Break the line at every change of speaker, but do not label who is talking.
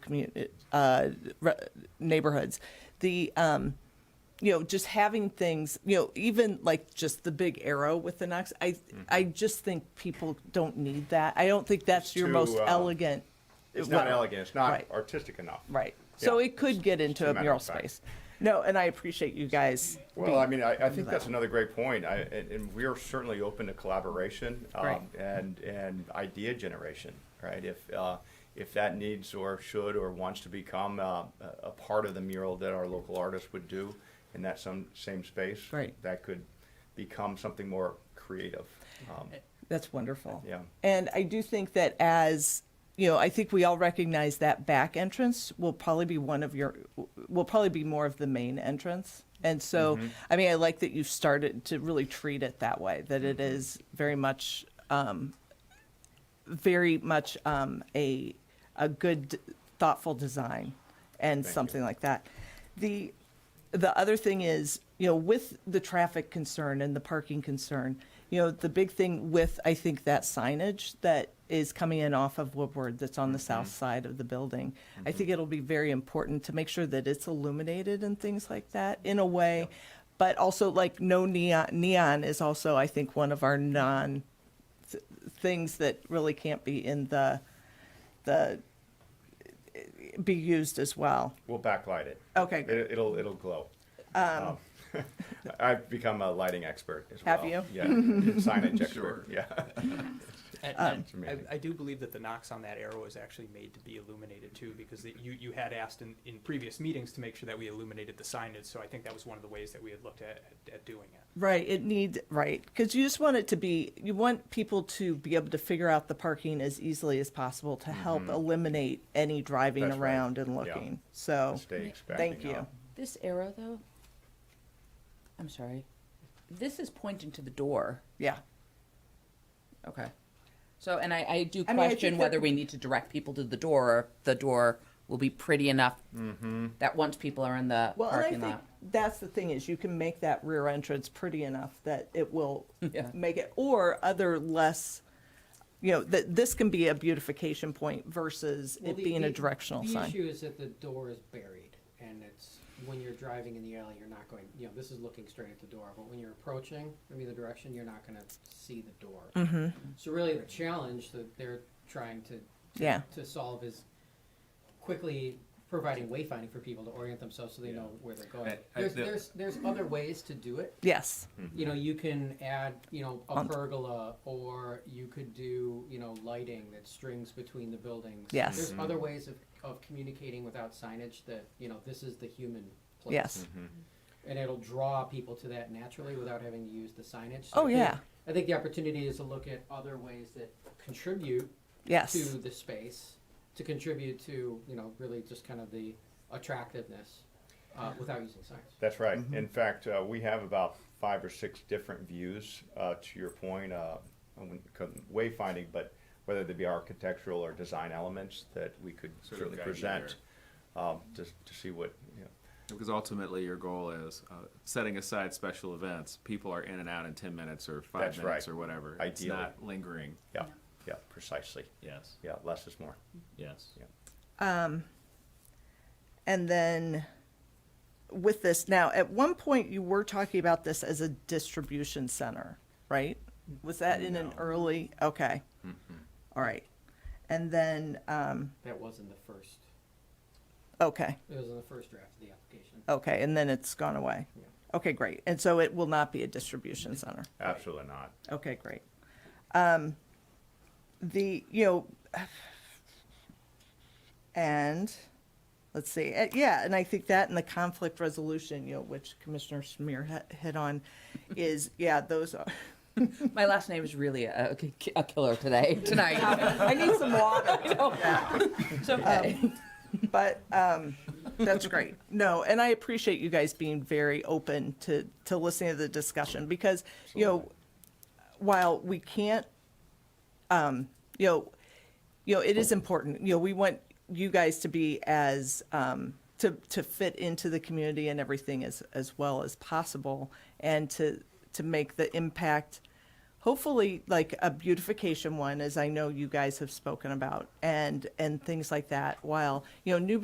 commu- uh, re- neighborhoods. The um, you know, just having things, you know, even like just the big arrow with the Knox. I
Mm-hmm.
I just think people don't need that. I don't think that's your
too,
most
uh,
elegant.
It's not
Well,
elegant, it's not
right.
artistic enough.
Right. So
Yeah.
it could get into a
matter of
mural
fact.
space. No, and I appreciate you guys.
Well, I mean, I, I think that's another great point. I, and, and we are certainly open to collaboration um,
Right.
and and idea generation, right? If uh, if that needs or should or wants to become uh, a, a part of the mural that our local artists would do in that some same space,
Right.
That could become something more creative. Um,
Eh. That's wonderful.
Yeah.
And I do think that as, you know, I think we all recognize that back entrance will probably be one of your, will probably be more of the main entrance. And so, I mean, I like that you started to really treat it that way, that it is very much, um, very much, um, a, a good thoughtful design and
you.
something like that. The, the other thing is, you know, with the traffic concern and the parking concern, you know, the big thing with, I think, that signage that is coming in off of Woodward that's on the south side of the building, I think it'll be very important to make sure that it's illuminated and things like that in a way. But also, like, no neon, neon is also, I think, one of our non th- things that really can't be in the, the, be used as well.
we'll backlight it.
Okay.
It, it'll it'll glow. Um, I've become a lighting expert as well.
Have you?
Yeah, signage expert.
Sure.
Yeah.
And, and
Ah, It's amazing.
I, I do believe that the Knox on that arrow is actually made to be illuminated too, because the, you, you had asked in, in previous meetings to make sure that we illuminated the signage, so I think that was one of the ways that we had looked at, at- at doing it.
Right, it needs, right, because you just want it to be, you want people to be able to figure out the parking as easily as possible to help eliminate any driving
Mm-hmm. That's right.
around and
Yeah.
looking, so,
Mistakes
thank
backing
you.
up.
This arrow, though, I'm sorry. This is pointing to the door.
Yeah,
Okay. So, and I, I do
I mean, I think
question
that-
whether we need to direct people to the door. or if The door will be pretty enough that once people are in the
well, and I
parking
think
lot.
that's the thing is you can make that rear entrance pretty enough that it will
Yeah.
make it, or other less, you know, that this can be a beautification point versus
Well,
it
the-
being a
the-
directional
The
sign.
issue is that the door is buried, and it's, when you're driving in the alley, you're not going, you know, this is looking straight at the door, but when you're approaching from either direction, you're not gonna see the door.
Mm-hmm.
So really, the challenge that they're trying to,
Yeah.
to, to solve is quickly providing wayfinding for people to orient themselves so they know where they're going.
I- I-
There's,
the-
there's, there's other ways to do it,
Yes,
you know, you can add, you know, a
On-
pergola, or you could do, you know, lighting that strings between the buildings.
Yes.
There's other ways of, of communicating without signage that, you know, this is the human place.
yes,
And it'll draw people to that naturally without having to use the signage.
Oh,
I think-
yeah.
I think the opportunity is to look at other ways that contribute
yes,
to the space, to contribute to, you know, really just kind of the attractiveness, uh, without using signs.
That's right.
Mm-hmm.
In fact, uh, we have about five or six different views, uh, to your point, uh, on when it comes- wayfinding, but whether they be architectural or design elements that we could
Sort of
certainly
guide you
present, um, to, to see what, you know,
Because ultimately, your goal is uh, setting aside special events. People are in and out in 10 minutes or five
That's
minutes
right.
or whatever. It's
Ideally.
not lingering.
yeah, yeah, precisely.
Yes.
Yeah, less is more.
Yes.
Yeah.
and then with this now at one point you were talking about this as a distribution center right was that in an early okay
Mm-hmm.
All right and then um,
That wasn't the first,
okay
it was in the first draft of the application.
okay and then it's gone away
Yeah.
okay great and so it will not be a distribution center
Absolutely not.
Okay, great. Um, the, you know, and, let's see, eh, yeah, and I think that and the conflict resolution, you know, which Commissioner Smear hit- hit on, is, yeah, those are,
My last name is really a, a killer today, tonight.
I need some water.
it's okay.
But, um, that's great. No, and I appreciate you guys being very open to, to listening to the discussion because, you know, while we can't, um, you know, you know, it is important, you know, we want you guys to be as, um, to, to fit into the community and everything as, as well as possible and to, to make the impact hopefully like a beautification one, as I know you guys have spoken about, and and things like that. While you know new